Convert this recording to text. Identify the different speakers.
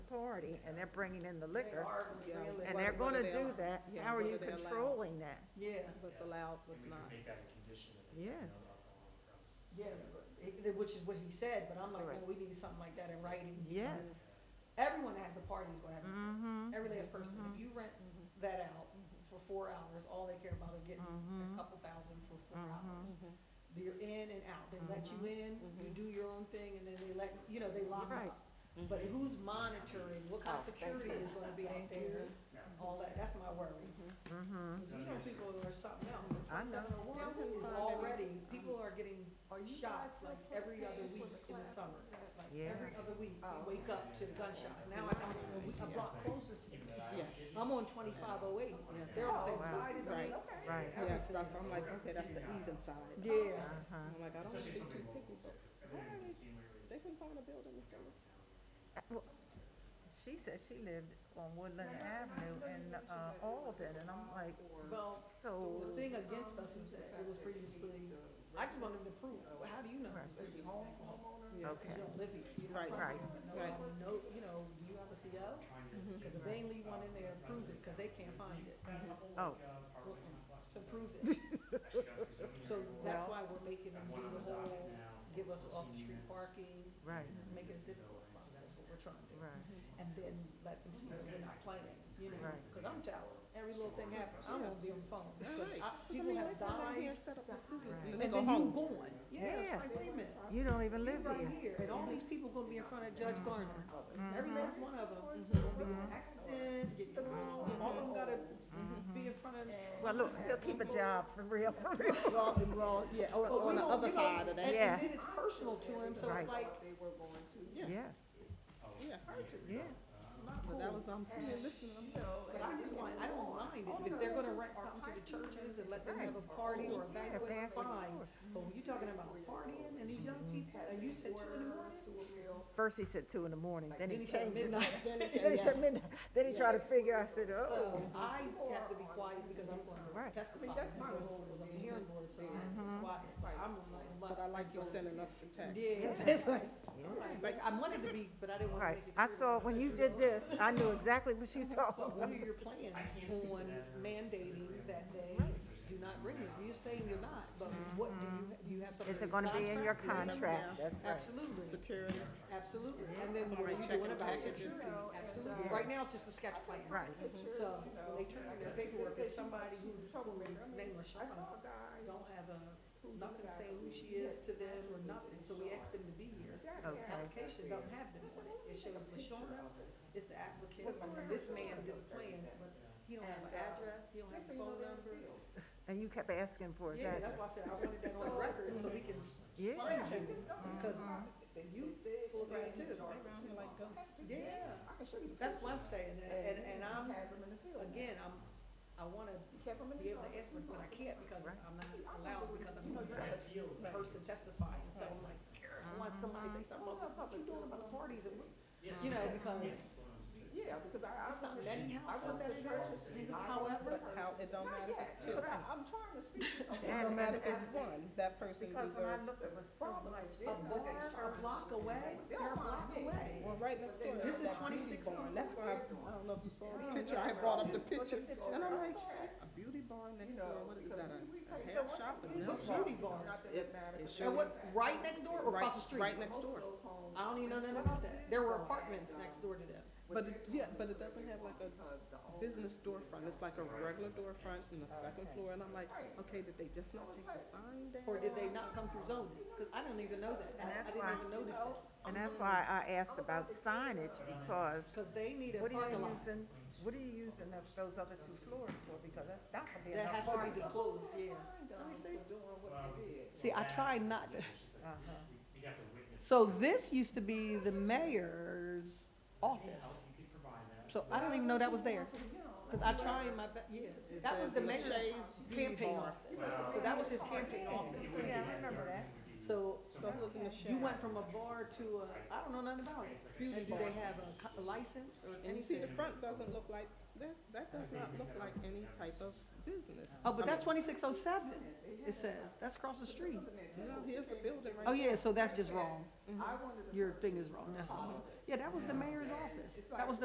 Speaker 1: party and they're bringing in the liquor,
Speaker 2: Yeah.
Speaker 1: and they're
Speaker 2: Whether-
Speaker 1: gonna
Speaker 2: whether they're
Speaker 1: do
Speaker 2: allo-
Speaker 1: that,
Speaker 2: yeah,
Speaker 1: how are you
Speaker 2: whether they're allowed.
Speaker 1: controlling that?
Speaker 3: Yeah,
Speaker 2: What's allowed, what's
Speaker 4: We
Speaker 2: not.
Speaker 4: could make that a condition of it,
Speaker 1: Yeah.
Speaker 4: no alcohol on premises.
Speaker 3: yeah, but it- which is what he said, but I'm like,
Speaker 1: Correct.
Speaker 3: no, we need something like that in writing.
Speaker 1: Yes.
Speaker 3: because Everyone that has a party is gonna have, a-
Speaker 1: Mm-hmm.
Speaker 3: every last person, if you rent that out for four hours, all they care about is getting a
Speaker 1: Mhm.
Speaker 3: couple thousand for four
Speaker 1: Mhm.
Speaker 3: hours.
Speaker 2: Mm-hmm.
Speaker 3: You're in and out, they let you in, you do your own thing, and then they let, you know, they lock
Speaker 1: Mm-hmm. Right. Mm-hmm.
Speaker 3: up. But who's monitoring, what kind of
Speaker 5: Oh, thank
Speaker 3: security is gonna be out there,
Speaker 4: Yeah.
Speaker 3: all that, that's my worry.
Speaker 1: Mm-hmm.
Speaker 3: You know, people are something else.
Speaker 1: I know.
Speaker 3: Now, who is already, people are getting shots like every other week in the summer. Like
Speaker 1: Yeah.
Speaker 3: every other week, you wake up to the gunshots. Now I come a week, a block closer to
Speaker 4: Even
Speaker 3: this.
Speaker 4: though
Speaker 2: Yeah.
Speaker 4: I don't get
Speaker 3: I'm on twenty-five oh eight.
Speaker 2: Yeah.
Speaker 3: They're on the same
Speaker 1: wow.
Speaker 3: side as me.
Speaker 2: Right.
Speaker 3: Okay.
Speaker 1: Right,
Speaker 2: Yeah, that's, that's, I'm like, okay, that's the even side.
Speaker 3: Yeah.
Speaker 1: uh-huh.
Speaker 2: I'm like, I don't wanna be too
Speaker 4: Especially something
Speaker 2: picky,
Speaker 4: local,
Speaker 2: but
Speaker 4: because I didn't even see where it
Speaker 2: they
Speaker 4: was.
Speaker 2: couldn't find a building if they were.
Speaker 1: Uh, well, She said she lived on Woodland Avenue in, uh, Alden, and I'm like,
Speaker 3: Well,
Speaker 1: so,
Speaker 3: the thing against us is that it was previously, I just wanted to prove, well, how do you know?
Speaker 1: Right.
Speaker 3: Is he home, homeowner?
Speaker 2: Yeah.
Speaker 3: You
Speaker 1: okay,
Speaker 3: don't live here. You don't
Speaker 2: Right.
Speaker 3: probably
Speaker 1: Right.
Speaker 3: don't know.
Speaker 2: Right.
Speaker 3: No, you know, do you have a CO?
Speaker 4: Trying to
Speaker 3: Cause
Speaker 4: get
Speaker 3: if Mhm. they ain't leave one in there, prove it, cause they can't find it.
Speaker 4: that whole,
Speaker 1: Oh.
Speaker 4: like, uh, apartment complex
Speaker 3: So
Speaker 4: is
Speaker 3: prove
Speaker 4: like-
Speaker 3: it.
Speaker 4: actually got through zoning
Speaker 3: So
Speaker 4: approval.
Speaker 3: that's why we're making them
Speaker 4: Got
Speaker 3: do
Speaker 4: one on
Speaker 3: the
Speaker 4: the docket
Speaker 3: whole,
Speaker 4: now,
Speaker 3: give us
Speaker 4: 14
Speaker 3: off-street
Speaker 4: units.
Speaker 3: parking,
Speaker 1: right,
Speaker 3: make it a difficult process, that's what we're trying to do.
Speaker 1: right,
Speaker 3: And then let them see that we're not playing, you know,
Speaker 1: Right.
Speaker 3: cause I'm tired, every little thing happens, I'm gonna be on the phone.
Speaker 2: Right.
Speaker 3: I-
Speaker 2: Cause I
Speaker 3: People
Speaker 2: mean,
Speaker 3: have
Speaker 2: they come down here
Speaker 3: died,
Speaker 2: and set up this business,
Speaker 1: Right.
Speaker 2: and
Speaker 3: and
Speaker 2: they
Speaker 3: then
Speaker 2: go
Speaker 3: you
Speaker 2: home.
Speaker 3: gone, yeah, it's
Speaker 1: Yeah.
Speaker 3: like, wait a minute.
Speaker 1: you don't even
Speaker 3: You
Speaker 1: live
Speaker 3: right
Speaker 1: here. Mm-hmm.
Speaker 3: here, and all these people gonna be in front of Judge Garner, every last one of them, gonna be in an accident, get thrown, and all of them gotta be in front of.
Speaker 1: Well, look, he'll keep a job for real, for real.
Speaker 2: Well, and well, yeah, or,
Speaker 3: But we
Speaker 2: on the
Speaker 3: don't-
Speaker 2: other
Speaker 3: you know,
Speaker 2: side of
Speaker 3: and-
Speaker 2: that,
Speaker 1: Yeah.
Speaker 3: And then it's personal to him, so
Speaker 1: Right.
Speaker 3: it's like,
Speaker 2: yeah,
Speaker 1: Yeah,
Speaker 2: yeah, purchase.
Speaker 1: yeah,
Speaker 2: But that was, what I'm sitting here listening, I'm like,
Speaker 3: but I just want, I don't mind it, if they're gonna rent something to the churches and let them have a party or a
Speaker 1: yeah,
Speaker 3: banquet,
Speaker 1: banquet,
Speaker 3: fine.
Speaker 1: sure.
Speaker 3: But when you talking about partying and these young people, and you said two in the morning?
Speaker 1: First he said two in the morning, then he
Speaker 3: said
Speaker 1: changed it.
Speaker 3: midnight.
Speaker 1: Then he said midnight, then he tried to figure, I said, oh,
Speaker 3: So I have to be quiet because I'm gonna
Speaker 1: Right. Mm-hmm.
Speaker 3: testify, that's my role, I'm a hearing board, so I'm quiet, I'm like,
Speaker 2: but I like you sending us the text.
Speaker 3: Yeah.
Speaker 2: It's like,
Speaker 3: like, I wanted to be, but I didn't wanna
Speaker 1: right.
Speaker 3: make it.
Speaker 1: I
Speaker 3: clear.
Speaker 1: saw, when you did this, I knew exactly what you talking
Speaker 3: But
Speaker 1: about.
Speaker 3: what are your plans on mandating that they do not bring it? You're saying you're not, but what do you, do you have something?
Speaker 1: Mm-hmm. Is it gonna be in your contract?
Speaker 2: contract?
Speaker 1: That's right.
Speaker 3: Absolutely,
Speaker 2: security,
Speaker 3: absolutely. And then what are
Speaker 2: somebody
Speaker 3: you
Speaker 2: checking
Speaker 3: doing about it?
Speaker 2: packages.
Speaker 3: Absolutely. Right now, it's just a sketch plan.
Speaker 1: Right.
Speaker 3: So when they turn in their paperwork, it's somebody who's probably named Rashawn. Don't have a, nothing saying who she is to them or nothing, so we asked them to be here. The
Speaker 1: Okay.
Speaker 3: Application don't have them on it. It shows Lashawna is the applicant, this man did the plan, but he don't have an address, he don't have a phone number.
Speaker 1: And you kept asking for
Speaker 3: Yeah,
Speaker 1: that.
Speaker 3: that's why I said I wanted that on record so we can
Speaker 1: Yeah, Uh-huh.
Speaker 3: find you, because the youth pull around too.
Speaker 2: around here like ghosts.
Speaker 3: Yeah. That's what I'm saying, and, and, and I'm, again, I'm, I wanna be able to answer, but I can't because
Speaker 1: Right.
Speaker 3: I'm not allowed, because I'm
Speaker 4: I
Speaker 3: not
Speaker 4: feel
Speaker 3: a
Speaker 4: like
Speaker 3: person testifying, so I'm like, I want somebody to say something, well, what you doing about the parties and, what-" you know, because. Yeah, because I, I was not that I was that in churches, however,
Speaker 2: But how, it don't matter if it's two.
Speaker 6: I'm trying to speak to someone.
Speaker 2: It don't matter if it's one, that person
Speaker 1: because
Speaker 2: deserves.
Speaker 1: when I looked, it was so much.
Speaker 3: a bar or a block away, they're a block away.
Speaker 2: Well, right next door.
Speaker 3: This
Speaker 2: there's
Speaker 3: is
Speaker 2: that beauty
Speaker 3: 26
Speaker 2: barn. That's why, I I don't know if you saw the picture, I had brought up the picture, and I'm like, a beauty barn next door, what is that, a- a hair shop? a nail
Speaker 3: What
Speaker 2: shop?
Speaker 3: beauty bar?
Speaker 2: It, it
Speaker 3: And
Speaker 2: should,
Speaker 3: what, right next door or
Speaker 2: right,
Speaker 3: across the street?
Speaker 2: right next door.
Speaker 3: I don't even know nothing about that. There were apartments next door to them.
Speaker 2: But it, yeah, but it doesn't have like a business storefront, it's like a regular storefront in the second floor, and I'm like, okay, did they just not take the sign down?
Speaker 3: Or did they not come through zoning? Because I don't even know that.
Speaker 1: And
Speaker 3: I- I
Speaker 1: that's
Speaker 3: didn't
Speaker 1: why-
Speaker 3: even notice it.
Speaker 2: Oh.
Speaker 1: And that's why I asked about signage, because
Speaker 3: Because they need a
Speaker 1: what are you
Speaker 3: parking lot.
Speaker 1: using, what are you using up those other two floors for? Because that's, that could be
Speaker 3: That
Speaker 1: enough
Speaker 3: has to
Speaker 1: parking.
Speaker 3: be disclosed, yeah.
Speaker 4: See, um,
Speaker 3: See, I try not to. Uh-huh.
Speaker 4: We'd have to witness.
Speaker 3: So this used to be the mayor's office.
Speaker 4: Help, you could provide that.
Speaker 3: So I don't even know that was there. Because I tried my, be- yeah, that was
Speaker 2: says
Speaker 3: the mayor's
Speaker 2: Lachey's Beauty
Speaker 3: campaign
Speaker 2: Bar.
Speaker 3: office. So that was his campaign office.
Speaker 4: It would
Speaker 1: Yeah, I
Speaker 4: be-
Speaker 1: remember that.
Speaker 4: it would be-
Speaker 3: So
Speaker 2: So it was in the
Speaker 3: you
Speaker 2: shade.
Speaker 3: went from a bar to a, I don't know nothing about it. And do they have a co- a license or
Speaker 2: And you see,
Speaker 3: anything?
Speaker 2: the front doesn't look like, this, that does not look like any type of business.
Speaker 3: Oh, but that's twenty-six oh seven, it says. That's across the street.
Speaker 2: No, here's the building right
Speaker 3: Oh, yeah, so that's just wrong. Your thing is wrong, that's all. Yeah, that was the mayor's office. That was the